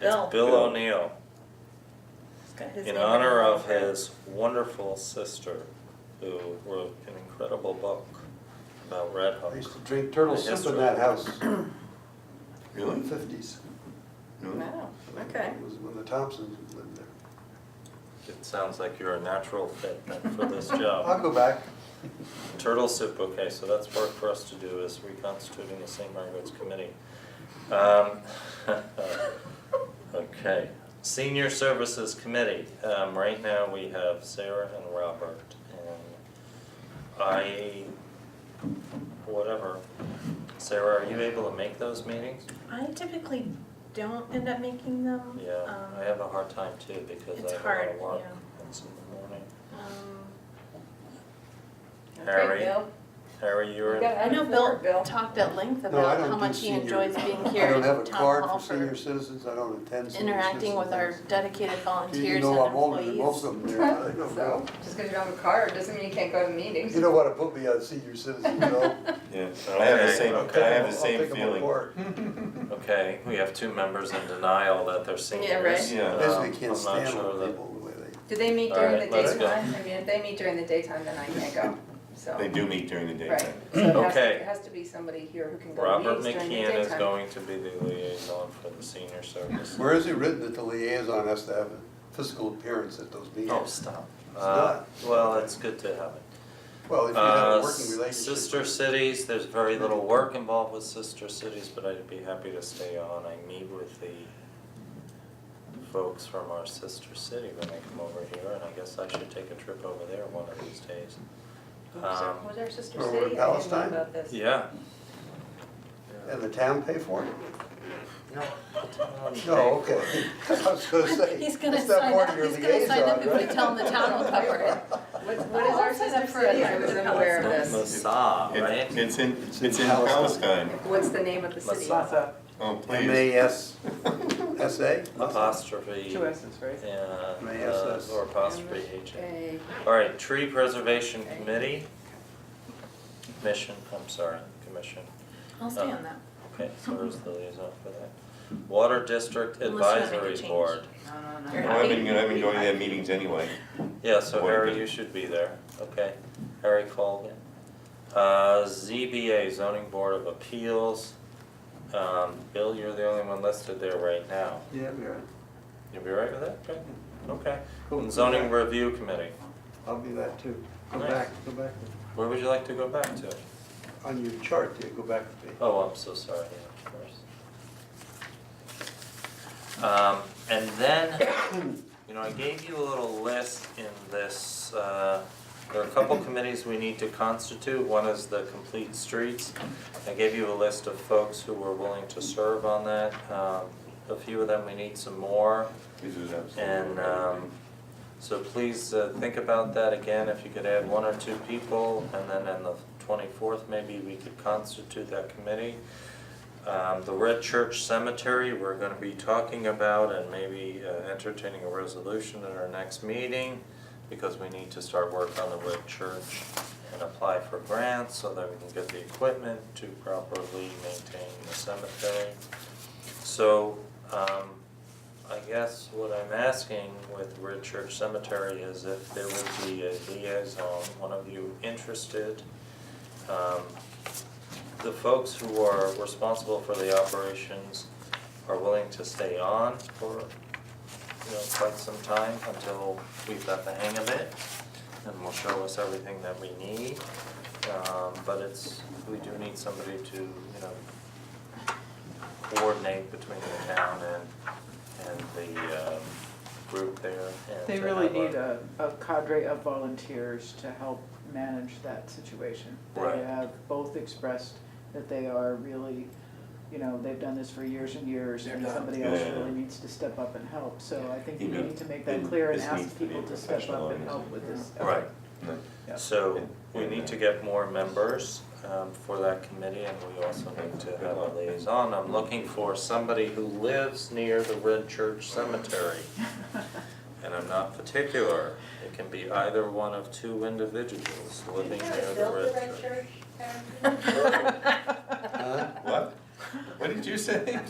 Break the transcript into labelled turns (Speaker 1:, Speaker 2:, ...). Speaker 1: Bill.
Speaker 2: It's Bill
Speaker 3: Bill.
Speaker 2: O'Neill,
Speaker 1: It's got his
Speaker 2: in
Speaker 1: name
Speaker 2: honor
Speaker 1: it.
Speaker 2: of his wonderful sister, who wrote an incredible book about Red
Speaker 3: I
Speaker 2: Hook.
Speaker 3: used to drink turtle
Speaker 2: The
Speaker 3: soup
Speaker 2: history.
Speaker 3: in that house in
Speaker 4: Really?
Speaker 3: the fifties.
Speaker 4: Really?
Speaker 1: Wow, okay.
Speaker 3: It was when the Thompsons lived there.
Speaker 2: It sounds like you're a natural fit then for this
Speaker 3: I'll
Speaker 2: job.
Speaker 3: go back.
Speaker 2: Turtle soup, okay, so that's work for us to do is reconstituting the St. Margaret's Committee. Um, Okay, Senior Services Committee, um, right now we have Sarah and Robert and I, whatever. Sarah, are you able to make those meetings?
Speaker 1: I typically don't end up making them.
Speaker 2: Yeah,
Speaker 1: um,
Speaker 2: I have a hard time too because I
Speaker 1: it's
Speaker 2: have a lot
Speaker 1: hard,
Speaker 2: of work.
Speaker 1: yeah.
Speaker 2: It's in the morning.
Speaker 1: um,
Speaker 2: Harry. Harry, you're in.
Speaker 1: I know
Speaker 5: Bill.
Speaker 1: Bill talked at length
Speaker 3: No, I
Speaker 1: about
Speaker 3: don't
Speaker 1: how
Speaker 3: do
Speaker 1: much he
Speaker 3: senior-
Speaker 1: enjoys being
Speaker 3: I
Speaker 1: here
Speaker 3: don't have a
Speaker 1: at town
Speaker 3: card
Speaker 1: hall
Speaker 3: for senior
Speaker 1: for
Speaker 3: citizens, I don't attend senior
Speaker 1: interacting with our
Speaker 3: citizens.
Speaker 1: dedicated volunteers
Speaker 3: You
Speaker 1: and
Speaker 3: know I'm older than most
Speaker 1: employees.
Speaker 3: of them there, I don't
Speaker 5: So,
Speaker 3: know.
Speaker 5: just because you don't have a card doesn't mean you can't go to meetings.
Speaker 3: You don't wanna put me on senior citizen, you know?
Speaker 4: Yeah, I have the
Speaker 2: Okay.
Speaker 4: same,
Speaker 3: I'll take
Speaker 4: I have
Speaker 3: 'em- I'll
Speaker 4: the same
Speaker 3: take 'em
Speaker 4: feeling.
Speaker 3: apart.
Speaker 2: Okay, we have two members in denial that they're seniors.
Speaker 4: Yeah, right.
Speaker 3: Basically
Speaker 2: Um,
Speaker 3: can't
Speaker 2: I'm not
Speaker 3: stand
Speaker 2: sure
Speaker 3: old
Speaker 2: that-
Speaker 3: people the way they,
Speaker 5: Do they meet
Speaker 2: All
Speaker 5: during the
Speaker 2: right, let's go.
Speaker 5: daytime? I mean, if they meet during the daytime, then I can't go, so.
Speaker 4: They do meet during the
Speaker 5: Right.
Speaker 4: daytime.
Speaker 5: So it has to-
Speaker 2: Okay.
Speaker 5: It has to be somebody here who can go to
Speaker 2: Robert
Speaker 5: meetings during the daytime.
Speaker 2: McKeon is going to be the liaison for the senior service.
Speaker 3: where is it written that the liaison has to have a physical appearance at those
Speaker 2: Oh,
Speaker 3: meetings?
Speaker 2: stop.
Speaker 3: It's
Speaker 2: Uh,
Speaker 3: not.
Speaker 2: well, it's good to have it.
Speaker 3: Well, if you have
Speaker 2: Uh,
Speaker 3: a working
Speaker 2: s-
Speaker 3: relationship.
Speaker 2: sister cities, there's very little work involved with sister cities, but I'd be happy to stay on. I meet with the folks from our sister city when they come over here, and I guess I should take a trip over there one of these days.
Speaker 5: Oops,
Speaker 2: Um,
Speaker 5: was our sister
Speaker 3: Or
Speaker 5: city?
Speaker 3: we're
Speaker 5: I didn't know
Speaker 3: Palestine?
Speaker 5: about this.
Speaker 2: Yeah.
Speaker 3: And the town pay for it?
Speaker 2: No,
Speaker 3: No, okay. I was gonna say.
Speaker 1: He's gonna
Speaker 3: that's not
Speaker 1: sign
Speaker 3: part
Speaker 1: up,
Speaker 3: of your
Speaker 1: he's gonna sign up
Speaker 3: liaison,
Speaker 1: if we
Speaker 3: right?
Speaker 1: tell him the town will cover it.
Speaker 5: What, what is
Speaker 1: Oh,
Speaker 5: our
Speaker 1: I'll sign
Speaker 5: sister
Speaker 1: up for
Speaker 5: city?
Speaker 1: it.
Speaker 5: I wasn't aware of this.
Speaker 2: Massage,
Speaker 4: It-
Speaker 2: right?
Speaker 4: It's in,
Speaker 3: It's
Speaker 4: it's
Speaker 3: in
Speaker 4: in
Speaker 3: Palestine.
Speaker 4: Palestine.
Speaker 5: What's the name of the city?
Speaker 2: Massage.
Speaker 4: Oh,
Speaker 3: M
Speaker 4: please.
Speaker 3: A S S A?
Speaker 2: Apostrophe.
Speaker 6: Two S's, right?
Speaker 2: Yeah,
Speaker 3: May
Speaker 2: uh,
Speaker 3: SS.
Speaker 2: or apostrophe H.
Speaker 5: Okay.
Speaker 2: All right, tree preservation committee. Mission, I'm sorry, commission.
Speaker 1: I'll stay on that.
Speaker 2: Okay, so there's the liaison for that. Water district
Speaker 1: Unless you wanna make a
Speaker 2: advisory
Speaker 1: change.
Speaker 2: board.
Speaker 5: No, no,
Speaker 4: Oh,
Speaker 5: no.
Speaker 1: You're-
Speaker 4: I've been, I've been going to their meetings anyway.
Speaker 2: Yeah, so
Speaker 4: Board
Speaker 2: Harry,
Speaker 4: did.
Speaker 2: you should be there. Okay, Harry Colgan. Uh, ZBA, zoning board of appeals. Um, Bill, you're the only one listed there right now.
Speaker 3: Yeah, we are.
Speaker 2: You'll be right with that? Good. Okay.
Speaker 3: Cool.
Speaker 2: And zoning review committee.
Speaker 3: I'll be that too. Go
Speaker 2: Nice.
Speaker 3: back, go back,
Speaker 2: Where would you like to go back to?
Speaker 3: on your chart there, go back to page.
Speaker 2: Oh, I'm so sorry, yeah, of course. Um, and then, you know, I gave you a little list in this, uh, there are a couple committees we need to constitute. One is the Complete Streets. I gave you a list of folks who were willing to serve on that. Um, a few of them, we need some more.
Speaker 4: This is absolutely.
Speaker 2: And um, so please uh, think about that again, if you could add one or two people, and then on the twenty-fourth, maybe we could constitute that committee. Um, The Red Church Cemetery, we're gonna be talking about and maybe uh, entertaining a resolution at our next meeting, because we need to start work on the Red Church and apply for grants so that we can get the equipment to properly maintain the cemetery. So, um, I guess what I'm asking with Red Church Cemetery is if there would be a liaison, one of you interested. Um, the folks who are responsible for the operations are willing to stay on for, you know, quite some time until we've got the hang of it. And will show us everything that we need, um, but it's, we do need somebody to, you know, coordinate between the town and, and the um, group there. and
Speaker 6: They
Speaker 2: to
Speaker 6: really
Speaker 2: have
Speaker 6: need a, a cadre of volunteers to help manage that situation.
Speaker 2: Right.
Speaker 6: They have both expressed that they are really, you know, they've done this for years and years, and somebody else
Speaker 4: Yeah.
Speaker 6: really needs to step up and help. So I think we
Speaker 4: You know,
Speaker 6: need to make that
Speaker 4: and
Speaker 6: clear and
Speaker 4: this needs
Speaker 6: ask
Speaker 4: to be
Speaker 6: people
Speaker 4: a
Speaker 6: to step
Speaker 4: professional
Speaker 6: up and help
Speaker 4: organization.
Speaker 6: with this.
Speaker 2: Right,
Speaker 4: No.
Speaker 6: Yeah.
Speaker 2: so we need to get more members um, for that committee and we also need to have a liaison. I'm looking for somebody who lives near the Red Church Cemetery. And I'm not particular, it can be either one of two individuals living near the Red Church.
Speaker 3: Huh?
Speaker 4: What? What did you say?